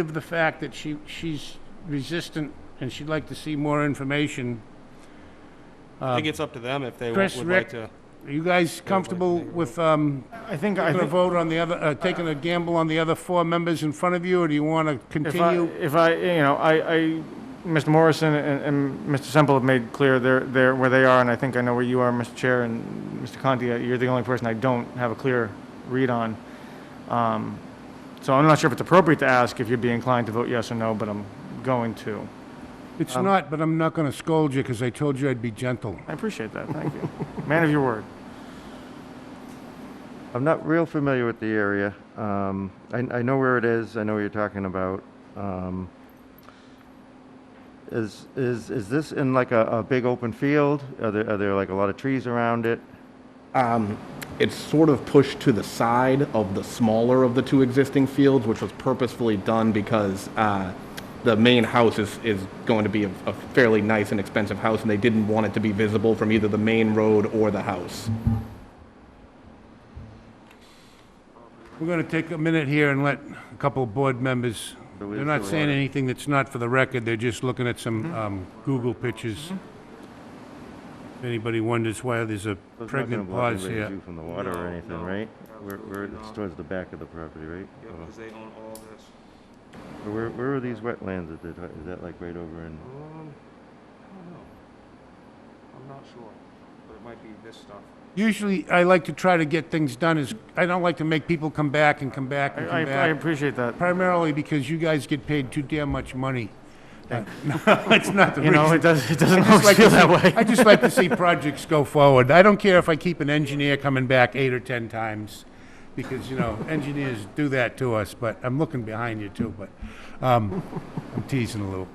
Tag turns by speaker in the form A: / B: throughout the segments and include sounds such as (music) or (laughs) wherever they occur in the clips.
A: of the fact that she, she's resistant and she'd like to see more information,
B: I think it's up to them if they would
A: Um, Chris, Rick-
B: like to.
A: are you guys comfortable with, um,
C: I think, I
A: taking a
C: think,
A: vote on the other, uh, taking a gamble on the other four members in front of you, or do you want to
C: if I,
A: continue?
C: if I, you know, I, I, Mr. Morrison and, and Mr. Semple have made clear their, their, where they are, and I think I know where you are, Mr. Chair, and Mr. Conti, uh, you're the only person I don't have a clear read on. Um, So I'm not sure if it's appropriate to ask if you'd be inclined to vote yes or no, but I'm going to.
A: It's not, but I'm not going to scold you because I told you I'd be gentle.
C: I appreciate that,
A: (laughs)
C: thank you. Man of your word.
D: I'm not real familiar with the area. Um, I, I know where it is. I know what you're talking about. Um, is, is, is this in like a, a big open field? Are there, are there like a lot of trees around it?
E: Um, It's sort of pushed to the side of the smaller of the two existing fields, which was purposefully done because uh, the main house is, is going to be a a fairly nice and expensive house, and they didn't want it to be visible from either the main road or the house.
A: We're going to take a minute here and let a couple of board members, they're not saying anything that's not for the record, they're just looking at some,
C: Mm-hmm.
A: um, Google pictures. If anybody wonders why there's a
D: It's not gonna
A: pregnant
D: block
A: pause here.
D: anybody's view From the water or
F: No,
D: anything,
F: no,
D: right? We're, we're, it's
F: not.
D: towards the back of the property, right?
F: Yeah,
D: Or-
F: because they own all this.
D: or Where, where are these wetlands? Is that, is that like right over in?
F: Um, I don't know. I'm not sure, but it might be this stuff.
A: Usually, I like to try to get things done is, I don't like to make people come back and come back
C: I,
A: and
C: I
A: come
C: I
A: back,
C: appreciate that.
A: primarily because you guys get paid too damn much money. (laughs) No, it's not the
C: You know, it
A: reason.
C: does, it
A: (laughs) I
C: doesn't
A: just
C: always
A: like
C: Oh, feel
A: to
C: that
A: see- I
C: way.
A: just like to see projects go forward. I don't care if I keep an engineer coming back eight or 10 times, because, you know, engineers do that to us, but I'm looking behind you too, but um, I'm teasing a little.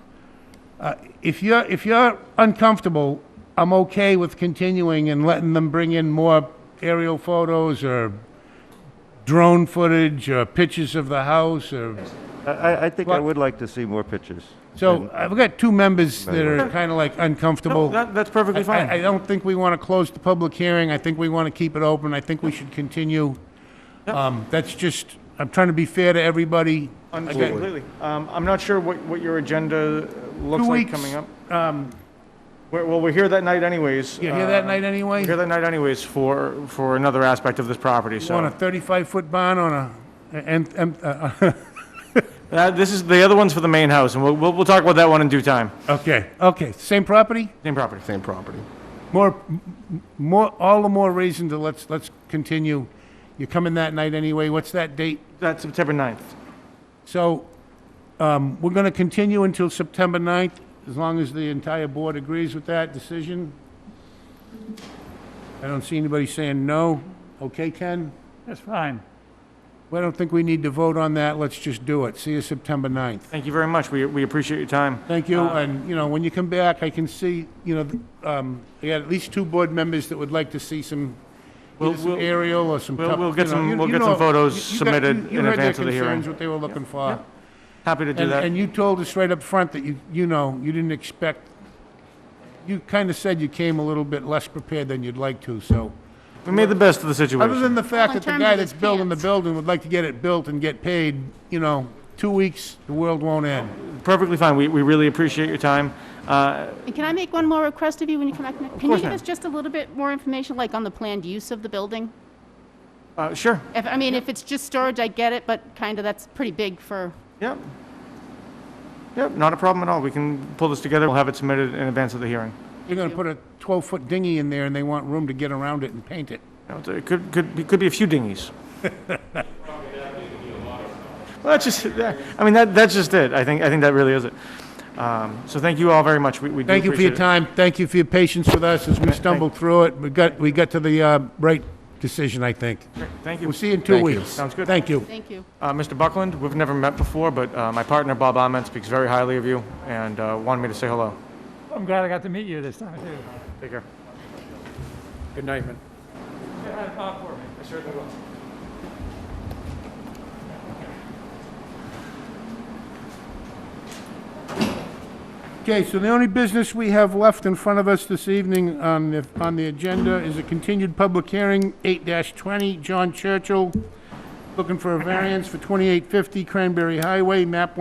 A: Uh, If you're, if you're uncomfortable, I'm okay with continuing and letting them bring in more aerial photos or drone footage or pictures of the house or
D: I, I, I think I
A: Block-
D: would like to see more pictures.
A: Uh, so I've got two members that are
D: Sure.
A: kind of like uncomfortable.
C: That, that's perfectly
A: I-
C: fine.
A: I, I don't think we want to close the public hearing. I think we want to keep it open. I think we should continue. Um, that's just, I'm trying to be fair to everybody.
C: Understood completely. Um, I'm not sure what, what your agenda looks
A: Two
C: like
A: weeks.
C: coming up.
A: Um,
C: We're- Well, we're here that night anyways.
A: you here that
C: uh,
A: night anyway?
C: We're here that night anyways for, for another aspect of this property,
A: On a
C: so.
A: 35-foot barn on a, and, and, uh,
C: Uh, This is, the other one's for the main house, and we'll, we'll we'll talk about that one in due time.
A: (laughs) okay, okay, same property?
C: Same property.
E: Same property.
A: More, m- more, all the more reason to let's, let's continue. You're coming that night anyway. What's that date?
C: That's September 9th.
A: So, um, we're going to continue until September 9th, as long as the entire board agrees with that decision. I don't see anybody saying no. Okay, Ken?
G: That's fine.
A: Well, I don't think we need to vote on that. Let's just do it. See you September 9th.
C: Thank you very much. We, we appreciate your time.
A: Thank you,
C: Uh,
A: and, you know, when you come back, I can see, you know, th- um, I got at least two board members that would like to see some,
C: We'll-
A: either some
C: we'll-
A: aerial or some...
C: we'll-
A: cup-
C: we'll get
A: you know,
C: some-
A: you-
C: we'll
A: you
C: get some
A: know,
C: photos
A: you- you got-
C: submitted
A: you-
C: in advance of the
A: You heard their
C: hearing.
A: concerns, what they were looking for.
C: Happy to do
A: And,
C: that.
A: and you told us right up front that you, you know, you didn't expect, you kind of said you came a little bit less prepared than you'd like to, so.
C: We made the best of the
A: Other than
C: situation.
A: the fact
H: Well,
A: that
H: in
A: the
H: terms
A: guy
H: of
A: that's
H: his
A: building the
H: pants.
A: building would like to get it built and get paid, you know, two weeks, the world won't end.
C: Perfectly fine. We, we really appreciate your time. Uh,
H: And can I make one more request of you when you come back? next- Can you
C: course,
H: give
C: ma'am.
H: us just a little bit more information, like on the planned use of the building?
C: uh, Sure.
H: If, I mean, if it's just storage, I get it, but kind of, that's pretty big for,
C: Yep. Yep, not a problem at all. We can pull this together. We'll have it submitted in advance of the hearing.
A: You're gonna put a twelve-foot dinghy in there and they want room to get around it and paint it.
C: You know, It could, could, be- could be a few
A: (laughs)
C: dinghies. Well, that's just, that- I mean, that, that's just it. I think, I think that really is it. Um, so thank you all very much. We, we do
A: Thank you for your
C: appreciate it.
A: time, thank you for your patience with us as we stumbled through it. We got, we got to the, uh, right decision, I think.
C: Thank you.
A: We'll see you in two
E: Thank you.
A: weeks.
C: Sounds good.
A: Thank you.
H: thank you.
C: Uh, Mr. Buckland, we've never met before, but uh, my partner Bob Ahmed speaks very highly of you and uh, wanted me to say hello.
G: I'm glad I got to meet you this time, too.
C: Take care.
B: Good night, man.
A: Okay, so the only business we have left in front of us this evening on the, on the agenda is a continued public hearing, eight twenty, John Churchill, looking for a variance for twenty-eight fifty Cranberry Highway, map